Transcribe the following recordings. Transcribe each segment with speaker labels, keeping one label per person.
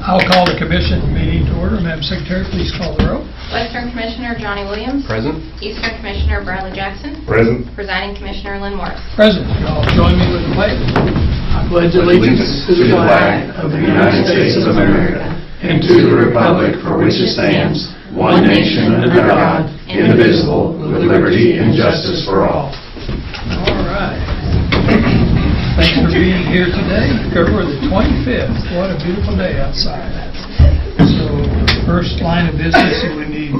Speaker 1: I'll call the commission meeting to order. Madam Secretary, please call the roll.
Speaker 2: Western Commissioner Johnny Williams.
Speaker 3: Present.
Speaker 2: Eastern Commissioner Bradley Jackson.
Speaker 3: Present.
Speaker 2: Presiding Commissioner Lynn Morris.
Speaker 1: President, you all join me with the pledge. I pledge allegiance to the flag of the United States of America and to the republic for which it stands,
Speaker 2: one nation under God, indivisible,
Speaker 1: with liberty and justice for all. All right. Thanks for being here today, February the 25th. What a beautiful day outside. So first line of business that we need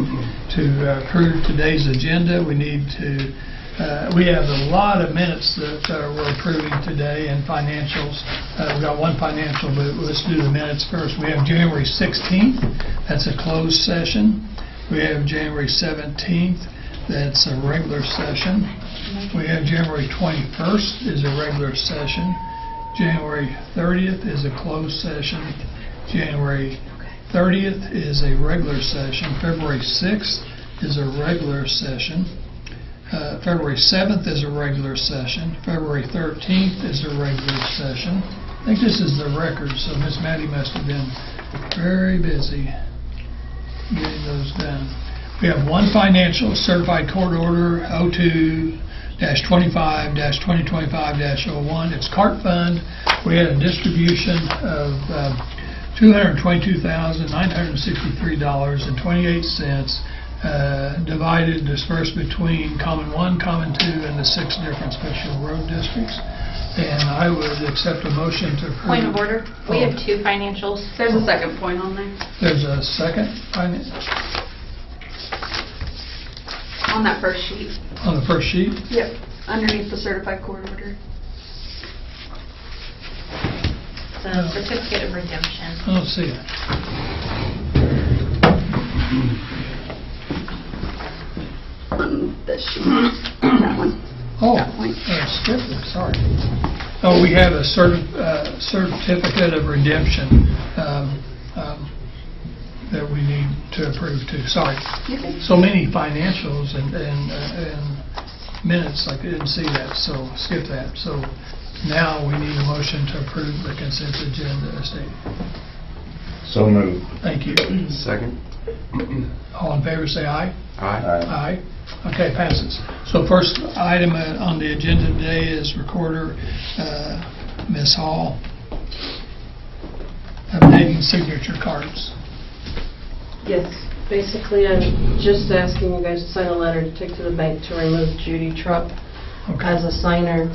Speaker 1: to approve today's agenda, we need to, uh, we have a lot of minutes that uh, we're approving today and financials. Uh, We've got one financial, but let's do the minutes first. We have January 16th, that's a closed session. We have January 17th, that's a regular session. We have January 21st is a regular session. January 30th is a closed session. January 30th is a regular session. February 6th is a regular session. Uh, February 7th is a regular session. February 13th is a regular session. I think this is the record, so Miss Matty must have been very busy getting those done. We have one financial certified court order, 02-25-2025-01. oh It's CART fund. We had a distribution of uh, $222,963.28 uh, divided, dispersed between Common 1, Common 2, and the six different special road districts. And I would accept a motion to approve.
Speaker 2: Point of order. We have
Speaker 1: Oh.
Speaker 2: two financials.
Speaker 4: There's a second point on there,
Speaker 1: There's a second finance
Speaker 4: on that first sheet.
Speaker 1: on the first sheet.
Speaker 4: Yep. Underneath the certified court order.
Speaker 2: The certificate of redemption.
Speaker 1: I don't see it.
Speaker 4: On this sheet, that one.
Speaker 1: Oh,
Speaker 4: That one.
Speaker 1: uh, skip it, sorry. Oh, we have a certi- uh, certificate of redemption um, um, that we need to approve too, sorry.
Speaker 4: Okay.
Speaker 1: So many financials and and uh, and minutes, I didn't see that, so skip that. So now we need a motion to approve the consent agenda as stated.
Speaker 5: So moved.
Speaker 1: Thank you.
Speaker 3: Second.
Speaker 1: All in favor, say aye.
Speaker 3: Aye.
Speaker 1: Aye. Okay, passes. So first item uh, on the agenda today is recorder, uh, Ms. Hall, updating signature cards.
Speaker 6: Yes, basically, I'm just asking you guys to sign a letter to take to the bank to remove Judy Trupp as
Speaker 1: Okay.
Speaker 6: a signer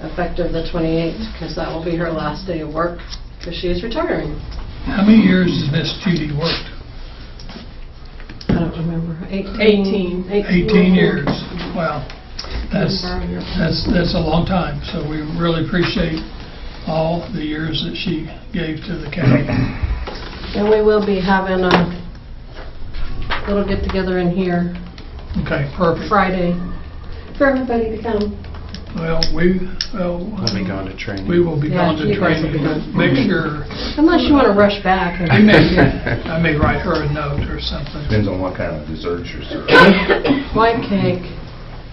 Speaker 6: effective the 28th, because that will be her last day of work, because she is retiring.
Speaker 1: How many years has Ms. Judy worked?
Speaker 6: I don't remember.
Speaker 4: Eighteen.
Speaker 1: 18 years. Wow. That's, that's, that's a long time. So we really appreciate all the years that she gave to the county.
Speaker 6: And we will be having a little get-together in here
Speaker 1: Okay, perfect.
Speaker 6: Friday for everybody to come.
Speaker 1: Well, we, well.
Speaker 3: Let me go on to training.
Speaker 1: We will be going to
Speaker 6: Yeah, you guys will be
Speaker 1: training.
Speaker 6: gone.
Speaker 1: Make sure
Speaker 6: Unless you want to rush back. and-
Speaker 1: I may, I may write her a note or something.
Speaker 5: Depends on what kind of desserts you're serving.
Speaker 6: White cake,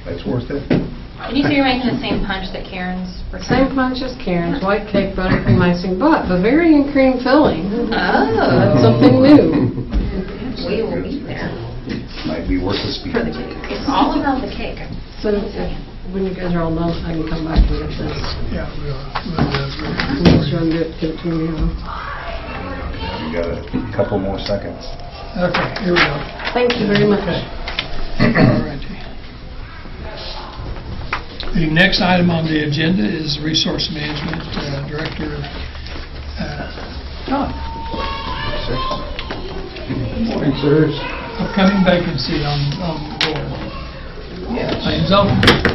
Speaker 5: That's worth it.
Speaker 2: And you two are making the same punch that Karen's. for-
Speaker 6: same punch as Karen's, white cake, buttercream icing, but Bavarian cream filling.
Speaker 2: Oh,
Speaker 6: That's something new.
Speaker 2: we will be there.
Speaker 5: Might be worth a speed.
Speaker 2: It's all about the cake.
Speaker 6: So if- when you guys are all done, I can come back and get this.
Speaker 1: Yeah, we'll, we'll, uh, do
Speaker 6: Unless
Speaker 1: it.
Speaker 6: you want to do it, give it to me. now.
Speaker 5: You got a couple more seconds.
Speaker 1: okay, here we go.
Speaker 6: Thank you very much.
Speaker 1: All righty. The next item on the agenda is Resource Management uh, Director, uh, Todd.
Speaker 5: Morning, sirs.
Speaker 1: Upcoming vacancy on, on the board. Lane's open.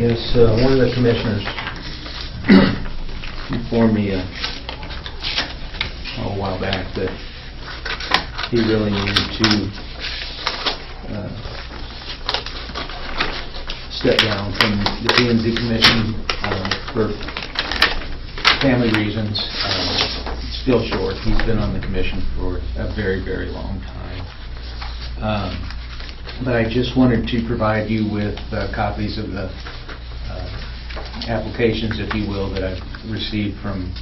Speaker 7: Yes, uh, one of the commissioners informed me uh, a while back that he really needed to uh, step down from the P and Z commission um, for family reasons. Um, It's Still short, he's been on the commission for a very, very long time. Um, but I just wanted to provide you with uh, copies of the uh, applications, if you will, that I've received from